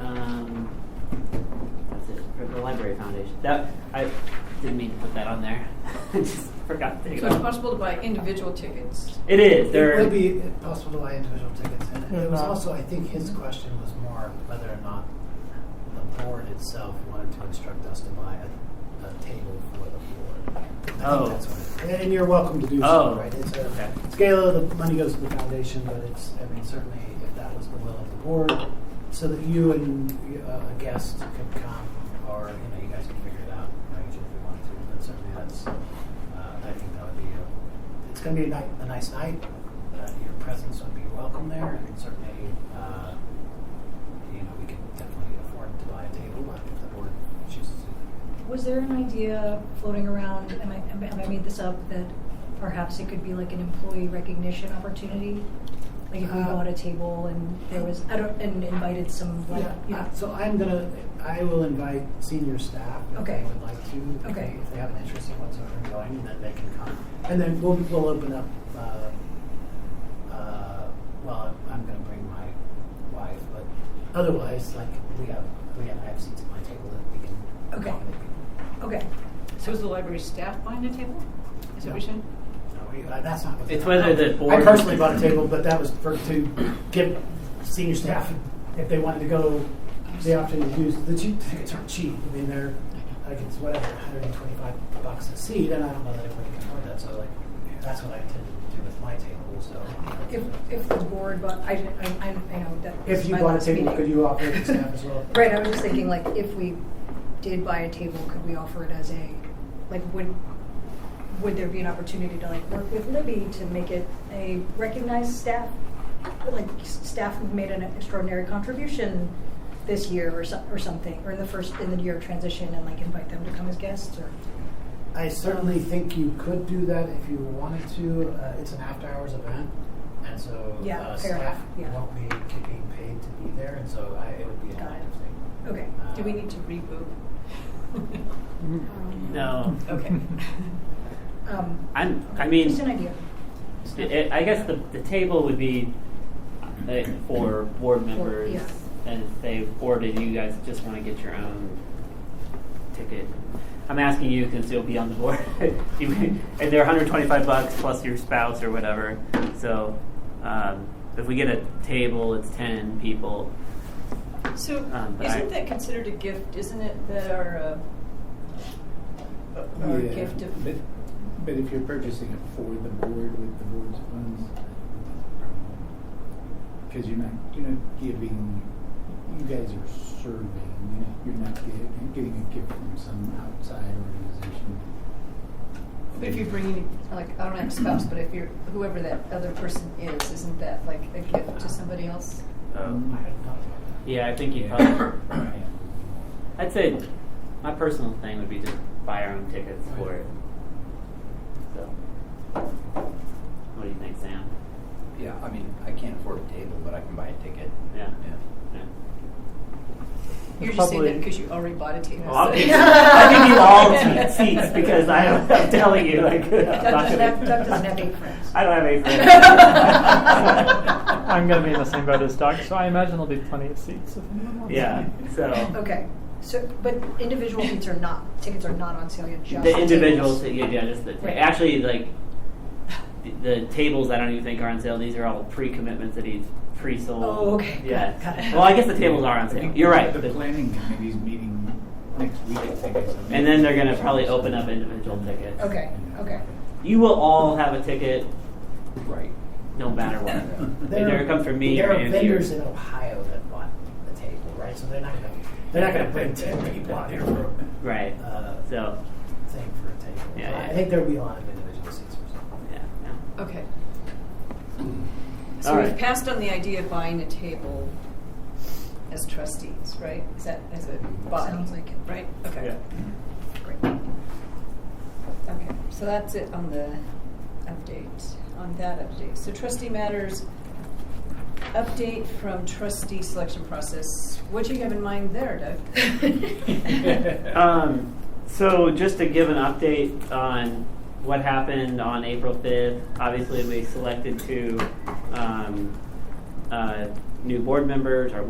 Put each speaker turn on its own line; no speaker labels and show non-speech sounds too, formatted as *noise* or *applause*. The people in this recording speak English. um, foundation. That I didn't mean to put that on there. *laughs* I just forgot to take it
So it's
off.
possible to buy individual tickets.
It is.
It
There.
would be possible to buy individual tickets, and
They're
it was
not-
also, I think his question was more whether or not the board itself wanted to instruct us to buy a, a table for the board. I
Oh.
think that's what it, and you're welcome to do
Oh.
so, right? It's a
Okay.
scale of the money goes to the foundation, but it's, I mean, certainly if that was the will of the board, so that you and uh, a guest could come, or, you know, you guys could figure it out, you know, each if you want to, but certainly that's, uh, I think that would be a, it's going to be a, night, a nice night. Uh, your presence would be welcome there, and certainly, uh, you know, we can definitely afford to buy a table but if the board chooses to.
Was there an idea floating around, and I, and I made this up, that perhaps it could be like an employee recognition opportunity? Like if we
Uh,
bought a table and there was, I don't, and invited some, like, you know,
uh, So I'm gonna, I will invite senior staff if
Okay.
they would like to. if
Okay.
they- If they have an interest in whatsoever in going, and then they can come. And then we'll we'll open up. Uh, uh, well, I'm gonna bring my wife, but otherwise, like we have we have I have seats at my table that we can
Okay.
accommodate people.
okay.
So is the library staff buying a table? Is that what you said?
No, we- uh, that's not. what-
It's whether the board-
I personally bought a table, but that was for, to give senior staff, if they wanted to go, the option to use, the cheap tickets aren't cheap. I mean, they're, like, it's whatever, hundred and twenty-five bucks a seat, and I don't know that everybody can afford that, so like, that's what I intended to do with my table, so.
If, if the board, but I, I, I I know that. this
If
is
you
my
bought a
last
table,
meeting.
could you offer it to staff as well?
Right, I was just thinking, like, if we did buy a table, could we offer it as a, like, would, would there be an opportunity to, like, work with Libby to make it a recognized staff? Like, s- staff who've made an extraordinary contribution this year or so, or something, or in the first, in the year of transition, and like invite them to come as guests, or?
I certainly think you could do that if you wanted to. Uh, it's an after-hours event, and so
Yeah,
uh,
fair
staff
enough, yeah.
won't be ki- being paid to be there, and so I, it would be an
Got it.
active thing.
Okay.
Uh,
Do we need to
*laughs*
reboot?
No.
Okay.
Um,
I'm. I
okay,
mean.
Just an idea.
It, I guess the, the table would be uh, for board members,
yeah.
and if they or do you guys just want to get your own ticket? I'm asking you because you'll be on the board. *laughs* you, and they're 125 bucks plus your spouse or whatever. So um, if we get a table, it's 10 people.
So
Um, but I-
isn't that considered a gift? Isn't it that our, uh,
uh,
our
Yeah,
gift of
But, but if you're purchasing it for the board with the board's funds, because you're not, you're not giving, you guys are serving, you're not getting, getting a gift from some outside organization.
But if you're bringing, like, I don't have a spouse, but if you're, whoever that other person is, isn't that like a gift to somebody else?
I hadn't thought about that.
yeah, I think you. Probably,
Yeah.
I'd say my personal thing would be just buy our own tickets for it. So, what do you think, Sam?
Yeah, I mean, I can't afford a table, but I can buy a ticket.
Yeah.
Yeah.
yeah.
You're just saying that
probably-
because you already bought a table.
Well, I'll
so- *laughs*
give you, I'll give you all t- seats because I am, I'm telling you, like, I'm not
Doug doesn't
gonna-
have, Doug doesn't have eight
*laughs*
friends.
I don't have any
*laughs*
friends. *laughs*
I'm going to be in the same boat as Doug, so I imagine there'll be plenty of seats if anyone wants.
Yeah. So
Okay, so, but individual seats are not, tickets are not on sale yet, just
the individuals,
tables.
yeah, yeah, just the
Right.
actually like the, the tables. I don't even think are on sale. These are all pre-commitments that he's pre-sold.
Oh, okay. Got it,
Yeah.
got it.
Well, I guess the tables are on
I
sale.
think
You're right.
The
The-
planning committee's meeting next week, I think. is a
And then they're gonna probably open up individual tickets.
Okay, okay.
You will all have a ticket,
Right.
no matter
*laughs*
what.
There
Either it
are-
comes from me
There
or
are
Angie
vendors
or-
in Ohio that want the table, right? So they're not gonna, they're not gonna bring ten people out here for
Right.
a uh,
So,
thing for a table.
Yeah,
I
yeah.
think there'll be a lot of individual seats or something.
yeah. yeah.
Okay.
All
So we've
right.
passed on the idea of buying a table as trustees, right? Is that, as a body?
Sounds like it.
Right? Okay.
Yeah.
Great. Okay, so that's it on the update, on that update. So trustee matters, update from trustee selection process. What do you have in mind there,
*laughs*
Doug? *laughs*
Um, so just to give an update on what happened on April 5th, obviously we selected two um, uh, new board members, or we